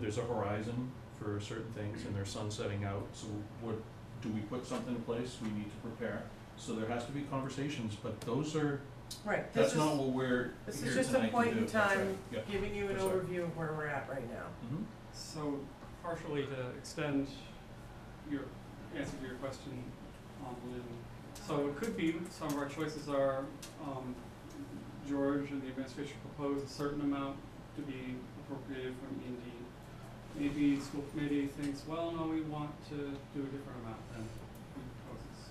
there's a horizon for certain things and there's sun setting out, so what, do we put something in place, we need to prepare. So there has to be conversations, but those are, Right, that's this is, not what we're this here tonight is just a to do. point in That's right. time. Yeah, giving you an I'm sorry. overview of where we're at right now. mhm, So partially to extend your answer to your question on Lynn. So it could be, some of our choices are, um, George and the administration proposed a certain amount to be appropriated from E and D. Maybe school committee thinks, well, no, we want to do a different amount than we proposes.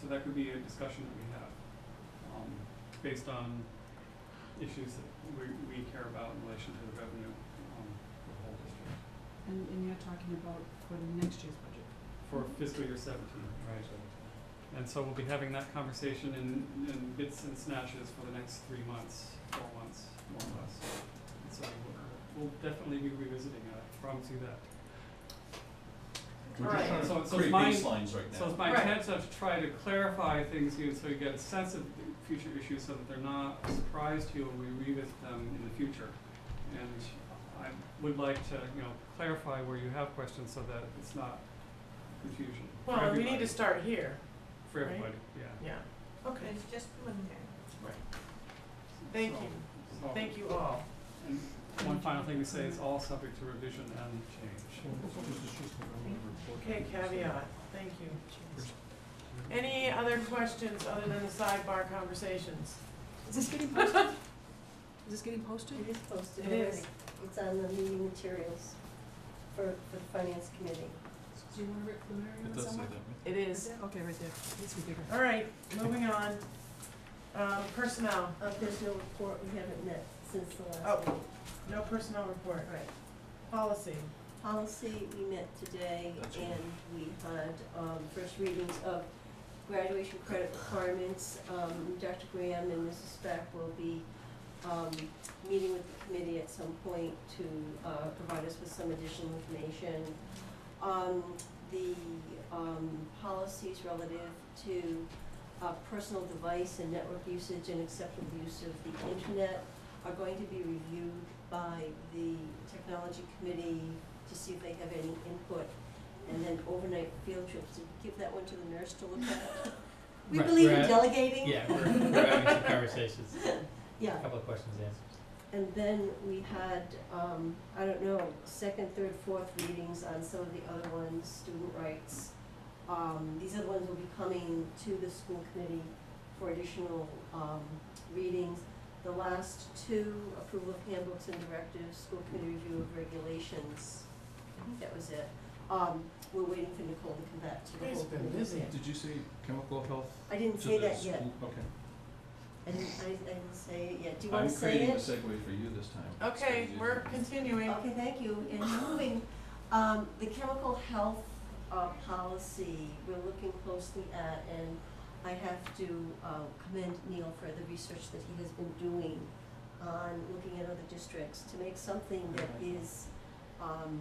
So that could be a discussion that we have, um, based on issues that we, we care about in relation to the revenue, um, for the whole district. And, and you're talking about for next year's budget. for fiscal year seventeen. Right. And so we'll be having that conversation in, in bits and snatches for the next three months, four months, more or less. And so we'll, we'll definitely be revisiting it, I promise you that. we're Alright, just so- trying to so create it's mine- baselines right now. So it's my Right. intent to try to clarify things here, so you get a sense of the future issues, so that they're not a surprise to you when we revisit them in the future. And I would like to, you know, clarify where you have questions, so that it's not confusion for Well, we everybody. need to start here, For right? everybody, yeah. yeah. Okay, It's just preliminary. thank So- you, so- thank you all. And one final thing to say, it's all subject to revision and change. Okay, caveat, thank you. Any other questions other than the sidebar conversations? Is this getting posted? Is this getting posted? It is posted It is. already. It's on the meeting materials for, for the finance committee. Do you wanna write preliminary It on does say that, somewhere? right? It is. Okay, right there, it's bigger. All right, moving on. Um, personnel, Uh, there's no report, we haven't met since the last Oh. meeting. no personnel report, Right. policy. Policy, we met today That's all. and we had, um, first readings of graduation credit requirements. Um, Dr. Graham and Mrs. Speck will be, um, meeting with the committee at some point to, uh, provide us with some additional information. Um, the, um, policies relative to, uh, personal device and network usage and acceptable use of the internet are going to be reviewed by the technology committee to see if they have any input. And then overnight field trips, Did we give that one to the nurse to look at. We Right, believe in right. delegating. Yeah, we're, we're having some conversations, a Yeah, couple of questions answered. and then we had, um, I don't know, second, third, fourth readings on some of the other ones, student rights. Um, these other ones will be coming to the school committee for additional, um, readings. The last two, approval of handbooks and directives, school committee review of regulations, I think that was it. Um, we're waiting for Nicole to come back to the You guys whole have been committee. busy. Did you say chemical health I didn't to say the that yet, school? Okay. I didn't, I, I didn't say it yet, do you wanna say it? I'm creating a segue for you this time. It's Okay, crazy. we're continuing. Okay, thank you. And moving, um, the chemical health, uh, policy, we're looking closely at, and I have to, uh, commend Neil for the research that he has been doing on looking at other districts to make something that is, um,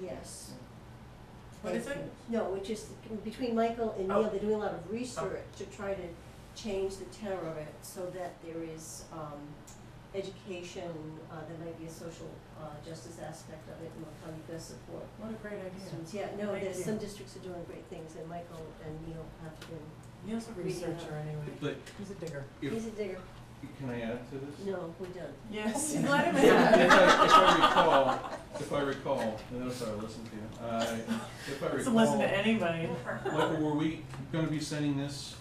yes. What is Thank it? you. No, which is, between Michael and Oh. Neil, they're doing a lot of research Oh. to try to change the tenor of it so that there is, um, education, uh, there might be a social, uh, justice aspect of it, and we'll probably best support What a great idea. students. Yeah, no, Thank there's, you. some districts are doing great things, and Michael and Neil have been, Neil's a researcher anyway. But He's a digger. if, he's a digger, can I add to this? no, we're done. Yes, let him If in. I, if I recall, if I recall, and I'm sorry, listen to you, uh, if I recall. Doesn't listen to anybody. Michael, were we gonna be sending this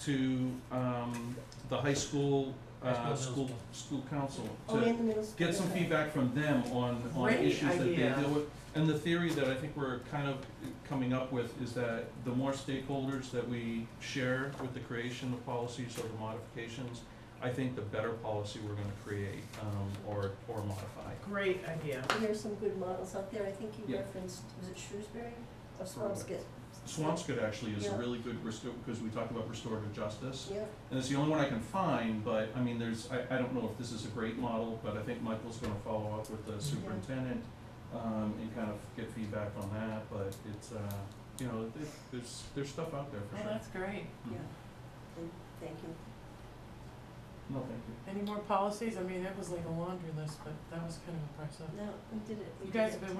to, um, the high school, uh, High school, school, middle school council? Oh, To in the middle school. get some okay. feedback from them on, on Great issues that they idea. deal with. And the theory that I think we're kind of coming up with is that the more stakeholders that we share with the creation of policies or the modifications, I think the better policy we're gonna create, um, or, or modify. Great idea. There are some good models out there, I think you Yeah. referenced, was it Shrewsbury or Correct. Swampscot? Swampscot actually is a Yeah. really good restore, because we talked about restorative justice, Yeah, and it's the only one I can find, but, I mean, there's, I, I don't know if this is a great model, but I think Michael's gonna follow up with the superintendent, um, and kind of get feedback on that, but it's, uh, you know, there- there's, there's stuff out there Oh, for sure. that's great. yeah, and thank you. No, thank you. Any more policies? I mean, that was like a laundry list, but that was kind of impressive. No, we did it. we You did guys it. have been